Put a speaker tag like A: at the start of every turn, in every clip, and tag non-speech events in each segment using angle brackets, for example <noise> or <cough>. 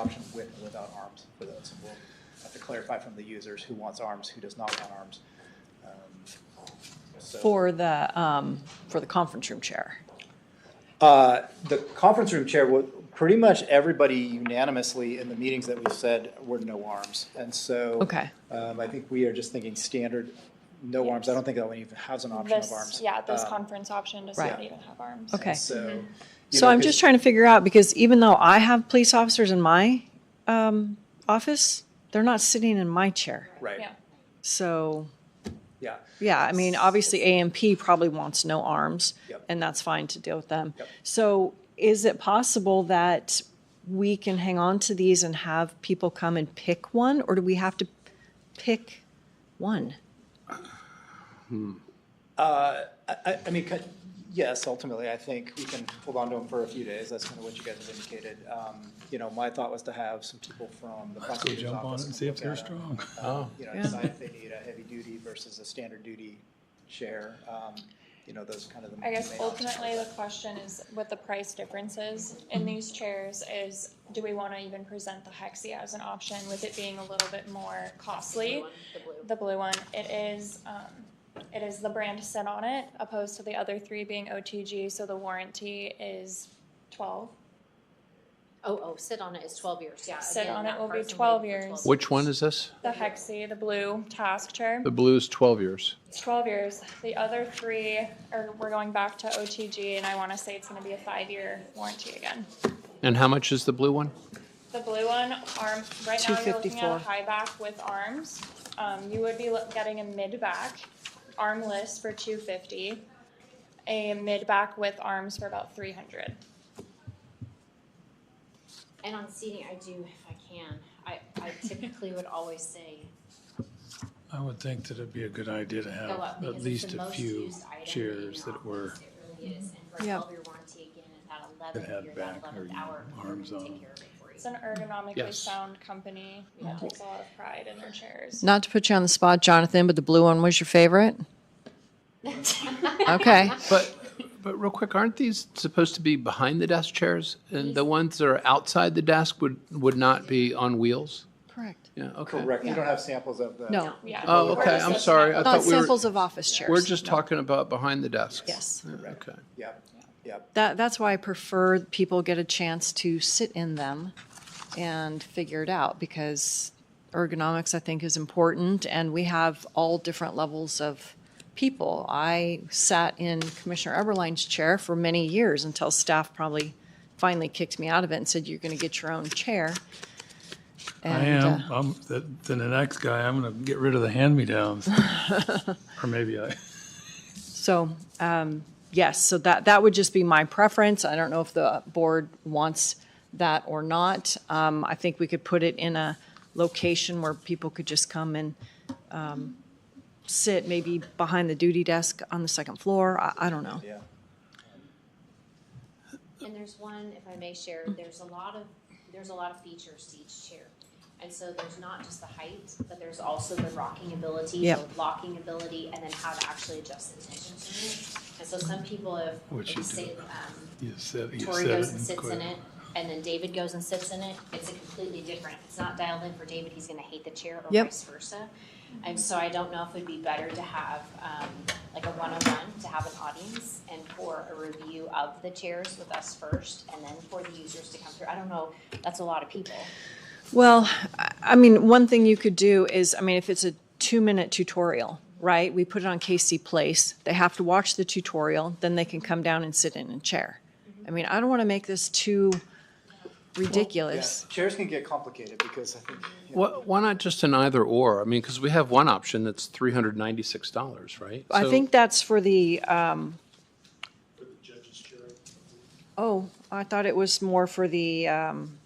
A: option with or without arms for those. We'll have to clarify from the users who wants arms, who does not want arms. Um, so-
B: For the, um, for the conference room chair.
A: Uh, The conference room chair, wa- pretty much everybody unanimously in the meetings that we've said were no arms. And so.
B: Okay.
A: um, I think we are just thinking standard, no arms. I don't think that one even has an option of
C: This,
A: arms.
C: yeah, this
A: Um,
C: conference Mm-hmm. option does
B: Right.
C: not even have arms.
B: Okay.
A: So. you
B: So
A: know,
B: I'm
A: 'cause-
B: just trying to figure out, because even though I have police officers in my, um, office, they're not sitting in my chair.
A: Right,
C: Yeah.
B: So,
A: yeah.
B: yeah, I mean, obviously AMP probably wants no arms,
A: Yep.
B: and that's fine to deal with them.
A: Yep.
B: So is it possible that we can hang on to these and have people come and pick one, or do we have to pick one?
A: I, I mean, cut- yes, ultimately, I think we can hold on to them for a few days. That's kind of what you guys have indicated. Um, You know, my thought was to have some people from the
D: Let's go
A: prosecutor's
D: jump on it
A: office.
D: and see if
A: come
D: they're
A: look at 'em.
D: strong.
A: you know, decide if they need a heavy duty versus a standard duty chair, um, you know, those kind of the.
C: I guess
A: main options.
C: ultimately the question is what the price differences
B: Mm-hmm.
C: in these chairs is, do we wanna even present the Hexi as an option with it being a little bit more costly? The blue one, it is, um, it is the brand set on it opposed to the other three being OTG, so the warranty is twelve.
E: Oh, oh, sit on it is twelve years, yeah.
C: Sit
E: again,
C: on it
E: that
C: will be
E: person waited
C: 12
E: for
C: years.
F: Which one is this?
C: The Hexi, the blue task chair,
F: The blue's 12 years.
C: it's twelve years. The other three are, we're going back to OTG and I wanna say it's gonna be a five-year warranty again.
F: And how much is the blue one?
C: The blue one, arm, right now you're looking at a
B: 254.
C: high back with arms. Um, you would be loo- getting a mid back, armless for two fifty, a mid back with arms for about three hundred.
E: And on seating, I do, if I can, I, I typically would always say
D: I would think that it'd be a good idea to
E: go up
D: have
E: because
D: at
E: it's
D: least
E: the
D: a
E: most
D: few
E: used item in
D: chairs
E: the
D: that were,
E: office, It really is, and for
B: Yeah.
E: twelve year warranty again, and that
D: That had
E: eleventh year, that
D: back or
E: eleventh hour, we're
D: arms
E: gonna
D: on.
E: take care of it for you.
C: It's an ergonomically
F: Yes.
C: sound company, that takes a lot of pride in their chairs.
B: Not to put you on the spot, Jonathan, but the blue one was your <laughs> favorite?
E: <laughs>
C: <laughs>
B: Okay.
F: But, but real quick, aren't these supposed to be behind the desk chairs? And the ones that are outside the desk would, would not be on wheels?
B: Correct.
F: Yeah, okay.
A: Correct, you don't have samples of the.
B: No.
C: Yeah. We're
F: Oh, okay,
C: just
F: I'm
C: looking
F: sorry.
C: at the-
F: I
B: Not
F: thought we were,
B: samples of office chairs.
F: we're just
B: No.
F: talking about behind the desk.
B: Yes.
F: Okay.
A: Yep, yep,
B: That, that's why I prefer people get a chance to sit in them and figure it out because ergonomics, I think, is important. And we have all different levels of people. I sat in Commissioner Eberlein's chair for many years until staff probably finally kicked me out of it and said, you're going to get your own chair.
D: I
B: And, uh,
D: am, I'm, th- then the next guy, I'm gonna get rid of
B: <laughs>
D: the hand-me-downs. Or maybe I,
B: So, um, yes, so that, that would just be my preference. I don't know if the board wants that or not. Um, I think we could put it in a location where people could just come and, um, sit maybe behind the duty desk on the second floor. I, I don't know.
A: yeah.
E: And there's one, if I may share, there's a lot of, there's a lot of features to each chair. And so there's not just the height, but there's also the rocking ability, the
B: Yep.
E: locking ability, and then how to actually adjust the tension to it. And so some people have,
D: What
E: like,
D: you
E: say,
D: do.
E: um,
D: you said, you
E: Tori
D: said
E: goes
D: it
E: and
D: and
E: sits in
D: quit.
E: it, and then David goes and sits in it, it's a completely different, if it's not dialed in for David, he's gonna hate the chair or
B: Yep.
E: vice versa. And so I don't know if it'd be better to have, um, like a one-on-one, to have an audience and for a review of the chairs with us first, and then for the users to come through, I don't know, that's a lot of people.
B: Well, I- I mean, one thing you could do is, I mean, if it's a two-minute tutorial, right? We put it on KC Place. They have to watch the tutorial, then they can come down and sit in a chair. I mean, I don't want to make this too ridiculous.
A: Yeah, Chairs can get complicated because I think, you know,
F: Why, why not just an either or? I mean, because we have one option that's $396, right?
B: I
F: So-
B: think that's for the, um. Oh, I thought it was more for the, um,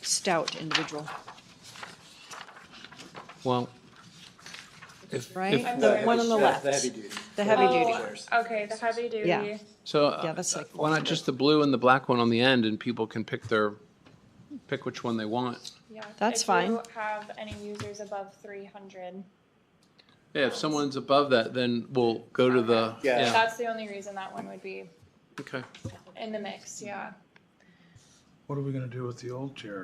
B: stout individual,
F: Well,
B: right?
C: I'm
B: The
C: sorry.
B: one on the
A: the-
B: left,
A: The heavy duty.
B: the heavy
C: Oh,
B: duty.
A: chairs.
C: Okay, the heavy duty.
B: Yeah.
F: So
B: Yeah,
F: uh,
B: that's like
F: why not just the blue and the black one on the end, and people can pick their, pick which one they want?
C: Yeah.
B: That's
C: If you
B: fine.
C: have any users above three hundred,
F: Yeah, if someone's above that, then we'll go to the,
A: Yeah.
F: yeah,
C: that's the only reason that one would be
F: okay.
C: in the mix, yeah.
D: What are we gonna do with the old chair?